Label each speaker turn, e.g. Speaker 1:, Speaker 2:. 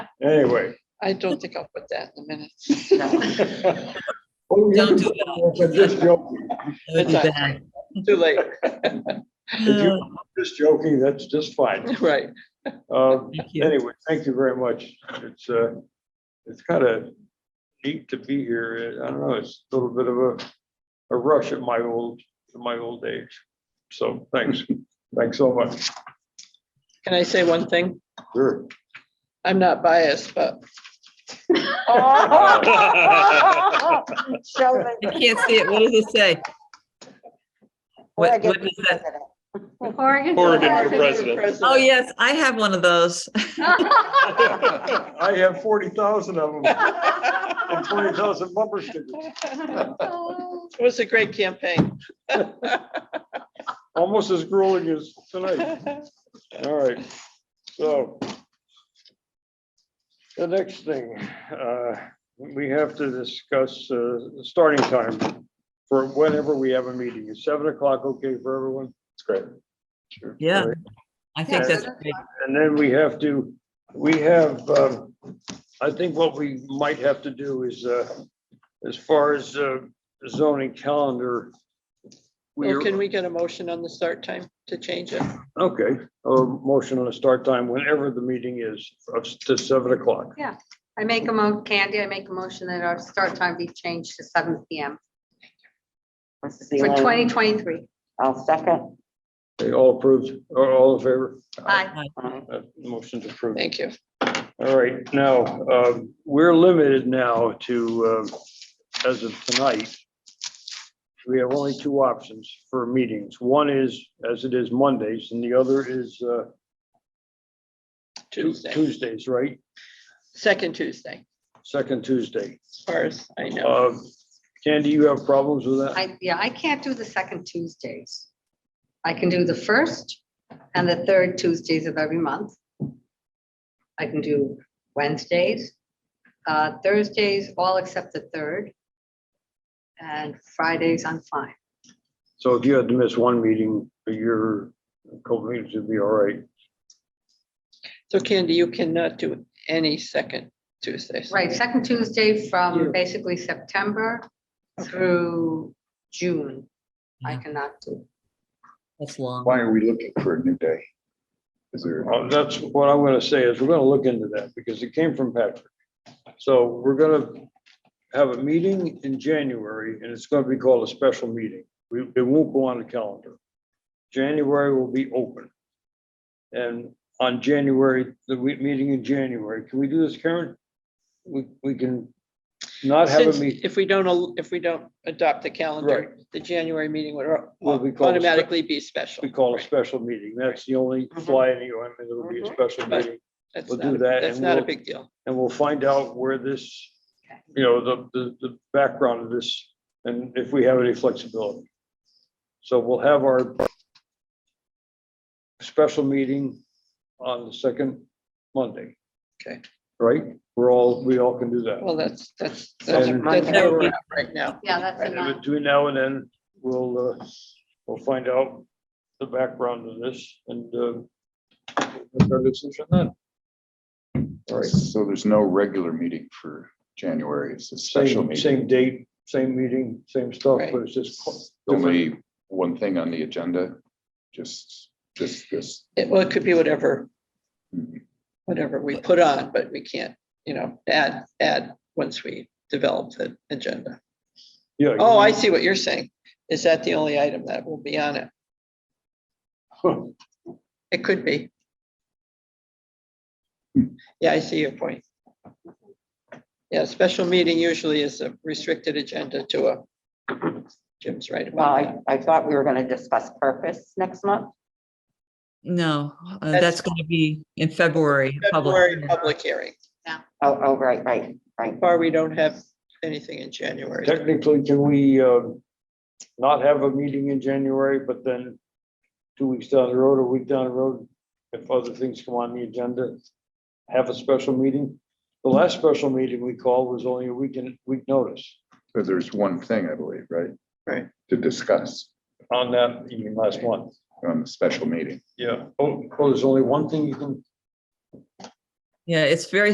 Speaker 1: Anyway.
Speaker 2: I don't think I'll put that in a minute.
Speaker 1: Oh, you can
Speaker 3: Don't
Speaker 1: I'm
Speaker 3: do
Speaker 1: just joking.
Speaker 3: It would be
Speaker 2: That's
Speaker 3: bad.
Speaker 2: Too late,
Speaker 1: If you-
Speaker 3: Oh,
Speaker 1: I'm Just joking, that's just fine.
Speaker 2: right.
Speaker 1: Um,
Speaker 3: Thank you.
Speaker 1: Anyway, thank you very much. It's, uh, it's kind of neat to be here. I don't know, it's a little bit of a, a rush at my old, my old age. So thanks, thanks so much.
Speaker 2: Can I say one thing?
Speaker 1: Sure.
Speaker 2: I'm not biased, but
Speaker 4: Sheldon,
Speaker 3: I can't see it. What does it say? What, what is that?
Speaker 5: Oregon.
Speaker 6: Oregon for president.
Speaker 3: Oh, yes, I have one of those.
Speaker 1: I have forty thousand of them and twenty thousand bumper stickers.
Speaker 2: it was a great campaign.
Speaker 1: Almost as grueling as tonight. All right, so. The next thing, uh, we have to discuss, uh, the starting time for whenever we have a meeting. Is seven o'clock okay for everyone?
Speaker 6: It's great.
Speaker 1: Sure.
Speaker 3: Yeah.
Speaker 1: All right.
Speaker 3: I think that's great.
Speaker 1: And then we have to, we have, um, I think what we might have to do is, uh, as far as uh, zoning calendar.
Speaker 2: Well,
Speaker 1: we're-
Speaker 2: can we get a motion on the start time to change it?
Speaker 1: Okay, a motion on the start time whenever the meeting is, of s- to seven o'clock.
Speaker 5: I make a mo, Candy, I make a motion that our start time be changed to seven P M for twenty twenty-three.
Speaker 4: I'll second.
Speaker 1: They all approved, or all in favor?
Speaker 5: Aye.
Speaker 1: Uh, Motion's approved.
Speaker 2: Thank you.
Speaker 1: All right, now, um, we're limited now to, uh, as of tonight, we have only two options for meetings. One is, as it is Mondays, and the other is uh, Tu-
Speaker 2: Tuesday,
Speaker 1: Tuesdays, right?
Speaker 2: second Tuesday,
Speaker 1: Second Tuesday.
Speaker 2: as far as I know.
Speaker 1: Uh, Candy, you have problems with that?
Speaker 5: I, yeah, I can't do the second Tuesdays. I can do the first and the third Tuesdays of every month. I can do Wednesdays, uh, Thursdays, all except the third. And Fridays, I'm fine.
Speaker 1: So if you had to miss one meeting, your couple meetings would be all right.
Speaker 2: So Candy, you cannot do any second Tuesdays.
Speaker 5: Right, second Tuesday
Speaker 1: Yeah.
Speaker 5: from basically September through June. I
Speaker 3: Yeah.
Speaker 5: cannot do.
Speaker 3: That's long.
Speaker 6: Why are we looking for a new day? Is there?
Speaker 1: Well, That's what I'm gonna say is we're gonna look into that because it came from Patrick. So we're gonna have a meeting in January and it's gonna be called a special meeting. We, it won't go on the calendar. January will be open. And on January, the we- meeting in January, can we do this, Karen? We, we can not have a
Speaker 2: Since
Speaker 1: meeting.
Speaker 2: if we don't, al- if we don't adopt the calendar, the January meeting would au-
Speaker 1: Will be called a spe-
Speaker 2: automatically be special.
Speaker 1: We call a special meeting. That's the only fly in the ointment. It'll be a special
Speaker 2: Mm-hmm. Right.
Speaker 1: meeting.
Speaker 2: That's
Speaker 1: we'll
Speaker 2: not
Speaker 1: do
Speaker 2: a-
Speaker 1: that
Speaker 2: That's
Speaker 1: and
Speaker 2: not a
Speaker 1: we'll-
Speaker 2: big deal.
Speaker 1: and we'll find out where this, you know, the, the, the background of this, and if we have any flexibility. So we'll have our special meeting on the second Monday.
Speaker 2: Okay.
Speaker 1: Right? We're all, we all can do that.
Speaker 2: Well, that's, that's, that's
Speaker 1: And-
Speaker 2: that's where we're at right now.
Speaker 5: Yeah, that's
Speaker 1: And
Speaker 5: enough.
Speaker 1: then between now and then, we'll, uh, we'll find out the background of this and, uh, make our decision then. All right.
Speaker 6: So there's no regular meeting for January. It's a special
Speaker 1: Same,
Speaker 6: meeting.
Speaker 1: same date, same meeting, same stuff,
Speaker 2: Right.
Speaker 1: but it's just. qu- different.
Speaker 6: Only one thing on the agenda, just, just this.
Speaker 2: It, well, it could be whatever,
Speaker 6: Mhm.
Speaker 2: whatever we put on, but we can't, you know, add, add once we develop the agenda.
Speaker 1: Yeah.
Speaker 2: Oh, I see what you're saying. Is that the only item that will be on it?
Speaker 1: you-
Speaker 2: It could be. Yeah, I see your point. Yeah, special meeting usually is a restricted agenda to a, Jim's right
Speaker 4: Well,
Speaker 2: about
Speaker 4: I,
Speaker 2: that.
Speaker 4: I thought we were going to discuss purpose next month.
Speaker 3: No, uh,
Speaker 2: That's-
Speaker 3: that's going to be in February. public.
Speaker 2: February public hearing,
Speaker 4: Oh, oh, right, right, right.
Speaker 2: or we don't have anything in January.
Speaker 1: Technically, can we um, not have a meeting in January, but then two weeks down the road, a week down the road, if other things come on the agenda, have a special meeting? The last special meeting we called was only a week in week notice
Speaker 6: But there's one thing, I believe, right?
Speaker 2: Right.
Speaker 6: To discuss
Speaker 1: on that evening last month.
Speaker 6: on the special meeting.
Speaker 1: Yeah. Oh, oh, there's only one thing you can
Speaker 3: Yeah, it's very